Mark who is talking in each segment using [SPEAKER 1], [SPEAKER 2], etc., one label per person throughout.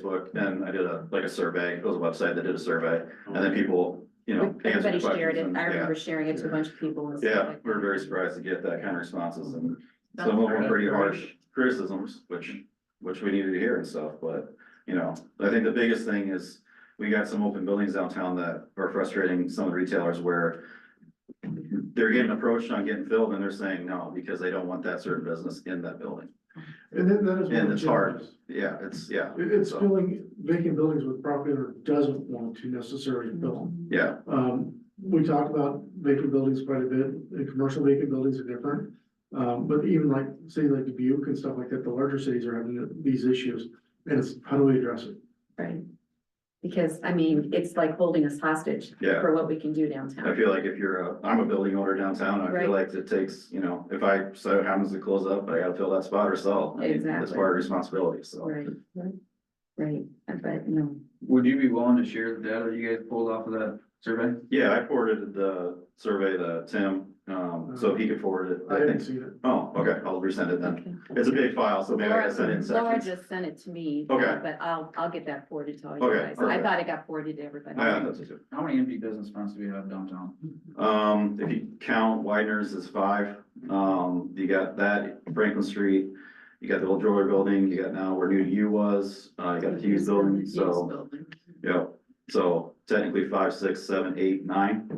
[SPEAKER 1] Facebook, and I did a, like a survey, it was a website that did a survey, and then people, you know. answered
[SPEAKER 2] Everybody shared
[SPEAKER 1] questions,
[SPEAKER 2] it.
[SPEAKER 1] and,
[SPEAKER 2] I
[SPEAKER 1] yeah.
[SPEAKER 2] remember sharing it to a bunch of people and stuff
[SPEAKER 1] Yeah,
[SPEAKER 2] like
[SPEAKER 1] we were
[SPEAKER 2] that.
[SPEAKER 1] very surprised to get that kind of responses and
[SPEAKER 2] That's
[SPEAKER 1] some of them were
[SPEAKER 2] great.
[SPEAKER 1] pretty harsh criticisms, which, which we needed to hear and stuff, but, you know, I think the biggest thing is we got some open buildings downtown that are frustrating some of the retailers where they're getting approached on getting filled and they're saying no, because they don't want that certain business in that building.
[SPEAKER 3] And then that is.
[SPEAKER 1] And
[SPEAKER 3] what
[SPEAKER 1] it's
[SPEAKER 3] it
[SPEAKER 1] hard.
[SPEAKER 3] is.
[SPEAKER 1] Yeah, it's, yeah,
[SPEAKER 3] It- it's
[SPEAKER 1] So-
[SPEAKER 3] filling vacant buildings with property owner doesn't want to necessarily build.
[SPEAKER 2] Mm-hmm.
[SPEAKER 1] yeah,
[SPEAKER 3] Um, we talk about vacant buildings quite a bit, and commercial vacant buildings are different. Um, but even like, say like Dubuque and stuff like that, the larger cities are having these issues, and it's, how do we address it?
[SPEAKER 2] Right. Because, I mean, it's like holding us hostage
[SPEAKER 1] yeah.
[SPEAKER 2] for what we can do
[SPEAKER 1] I
[SPEAKER 2] downtown.
[SPEAKER 1] feel like if you're a, I'm a building owner downtown, I
[SPEAKER 2] Right.
[SPEAKER 1] feel like it takes, you know, if I, so it happens to close up, I gotta fill that spot or sell. I mean, It's
[SPEAKER 2] Exactly.
[SPEAKER 1] part of responsibility, so.
[SPEAKER 2] Right, right, Uh, but no,
[SPEAKER 4] Would you be willing to share the data you guys pulled off of that survey?
[SPEAKER 1] Yeah, I forwarded the survey to Tim, um, so he could forward it,
[SPEAKER 3] I
[SPEAKER 1] I think.
[SPEAKER 3] haven't seen it.
[SPEAKER 1] Oh, okay, I'll resend it then.
[SPEAKER 2] okay.
[SPEAKER 1] It's a big file, so maybe I
[SPEAKER 2] Laura
[SPEAKER 1] gotta send it in
[SPEAKER 2] Laura
[SPEAKER 1] sections.
[SPEAKER 2] just sent it to me.
[SPEAKER 1] Okay.
[SPEAKER 2] But I'll, I'll get that forwarded to all you
[SPEAKER 1] Okay,
[SPEAKER 2] guys. I
[SPEAKER 1] perfect.
[SPEAKER 2] thought it got forwarded to everybody.
[SPEAKER 1] Yeah, that's it.
[SPEAKER 4] How many empty business fronts do we have downtown?
[SPEAKER 1] Um, if you count Widener's is five, um, you got that Franklin Street, you got the old jewelry building, you got now where New U was, uh, you got the Hughes building, so. Yeah, so technically five, six, seven, eight, nine.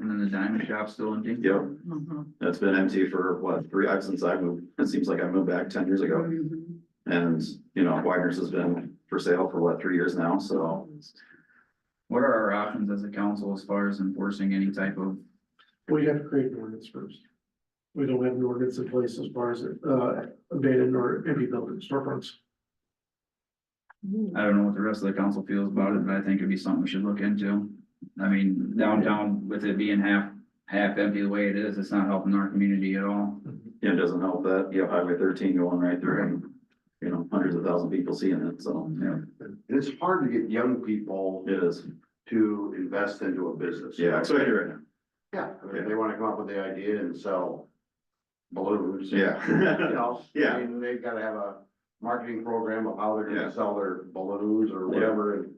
[SPEAKER 4] And then the diamond shop's still empty?
[SPEAKER 1] Yep,
[SPEAKER 2] Mm-hmm.
[SPEAKER 1] that's been empty for what, three, I've since I moved, it seems like I moved back ten years ago.
[SPEAKER 2] Mhm.
[SPEAKER 1] And, you know, Wagner's has been for sale for what, three years now, so.
[SPEAKER 4] What are our options as a council as far as enforcing any type of,
[SPEAKER 3] We have to create an ordinance first. We don't have an ordinance in place as far as, uh, abandoned or empty building storefronts.
[SPEAKER 4] I don't know what the rest of the council feels about it, but I think it'd be something we should look into. I mean, downtown with it being half, half empty the way it is, it's not helping our community at all.
[SPEAKER 1] It doesn't help that, you have Highway thirteen going right through and, you know, hundreds of thousand people seeing it, so
[SPEAKER 4] Yeah.
[SPEAKER 5] And it's hard to get young people
[SPEAKER 1] it is,
[SPEAKER 5] to invest into a business.
[SPEAKER 1] yeah, it's right here
[SPEAKER 5] Yeah, I mean, they wanna come up with the idea and sell balloons. You
[SPEAKER 1] right now.
[SPEAKER 5] know,
[SPEAKER 1] Yeah.
[SPEAKER 5] I mean, they've gotta have a marketing program of how they're
[SPEAKER 1] Yeah.
[SPEAKER 5] gonna sell their balloons or
[SPEAKER 1] Yeah.
[SPEAKER 5] whatever and.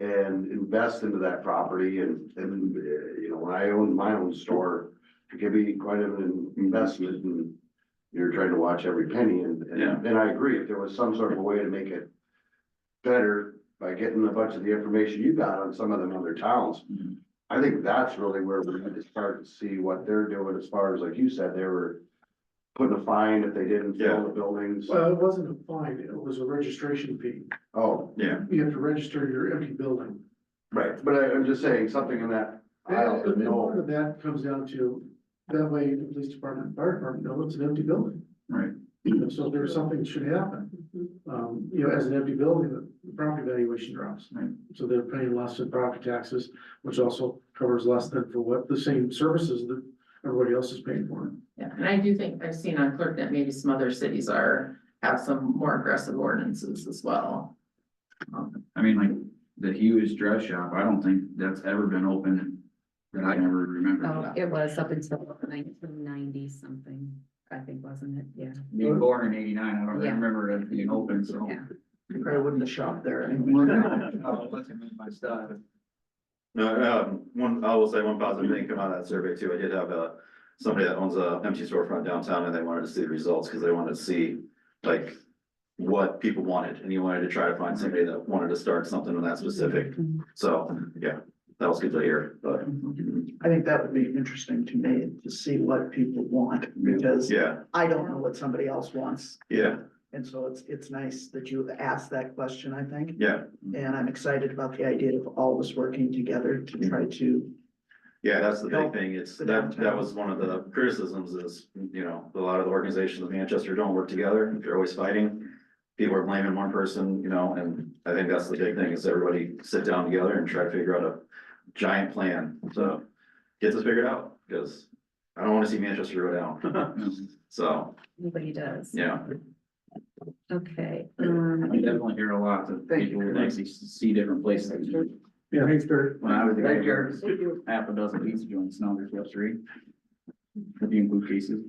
[SPEAKER 5] And invest into that property and, and, uh, you know, when I owned my own store, it could be quite an investment and. You're trying to watch every penny and,
[SPEAKER 1] Yeah.
[SPEAKER 5] and, and I agree, if there was some sort of a way to make it. Better by getting a bunch of the information you got on some of them other towns.
[SPEAKER 4] Mhm.
[SPEAKER 5] I think that's really where we need to start to see what they're doing as far as, like you said, they were. Putting a fine if they didn't
[SPEAKER 1] Yeah.
[SPEAKER 5] fill the buildings.
[SPEAKER 3] Well, it wasn't a fine, it was a registration fee.
[SPEAKER 5] Oh,
[SPEAKER 1] Yeah,
[SPEAKER 3] You have to register your empty building.
[SPEAKER 5] right, but I, I'm just saying, something in that aisle,
[SPEAKER 3] And then part
[SPEAKER 5] no,
[SPEAKER 3] of that comes down to, that way the police department, and fire department know it's an empty building.
[SPEAKER 4] Right.
[SPEAKER 3] You know, So there's something that should happen. Um, you know, as an empty building, the property valuation drops.
[SPEAKER 4] Right.
[SPEAKER 3] So they're paying less in property taxes, which also covers less than for what the same services that everybody else is paying for.
[SPEAKER 6] Yeah, and I do think I've seen on ClerkNet, maybe some other cities are, have some more aggressive ordinances as well. Um,
[SPEAKER 4] I mean, like, the Hughes dress shop, I don't think that's ever been open that I never
[SPEAKER 2] Oh,
[SPEAKER 4] remember.
[SPEAKER 2] it was up until nineteen ninety something, I think, wasn't it? Yeah.
[SPEAKER 4] Being born in eighty-nine, I don't
[SPEAKER 2] Yeah.
[SPEAKER 4] remember it being open, so.
[SPEAKER 2] Yeah.
[SPEAKER 6] you Probably wouldn't have shop there anyway.
[SPEAKER 4] We're not- uh, let's admit my stuff.
[SPEAKER 1] no, um, one, I will say one positive thing come out of that survey too, I did have a. Somebody that owns a empty storefront downtown and they wanted to see the results, cause they wanted to see, like. What people wanted, and he wanted to try to find somebody that wanted to start something with that specific, so, yeah, that was good to hear, but,
[SPEAKER 7] I think that would be interesting to me, to see what people want, because
[SPEAKER 1] yeah,
[SPEAKER 7] I don't know what somebody else wants.
[SPEAKER 1] yeah,
[SPEAKER 7] And so it's, it's nice that you asked that question, I think,
[SPEAKER 1] yeah.
[SPEAKER 7] and I'm excited about the idea of all of us working together to try to.
[SPEAKER 1] Yeah, that's the big
[SPEAKER 7] Help
[SPEAKER 1] thing, it's,
[SPEAKER 7] the
[SPEAKER 1] that, that
[SPEAKER 7] downtown.
[SPEAKER 1] was one of the criticisms is, you know, a lot of the organizations in Manchester don't work together, they're always fighting. People are blaming one person, you know, and I think that's the big thing, is everybody sit down together and try to figure out a giant plan, so. Get this figured out, because I don't wanna see Manchester go down, so,
[SPEAKER 2] Nobody does.
[SPEAKER 1] yeah,
[SPEAKER 2] Okay.
[SPEAKER 4] I
[SPEAKER 2] um,
[SPEAKER 4] definitely hear a lot that
[SPEAKER 7] Thank you.
[SPEAKER 4] people would like to see different places.
[SPEAKER 3] Yeah, thanks, Barry.
[SPEAKER 4] When I was there, half a dozen pizza joints, now there's about three. If you include cases.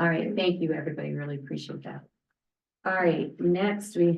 [SPEAKER 2] All right, thank you, everybody. Really appreciate that. All right, next we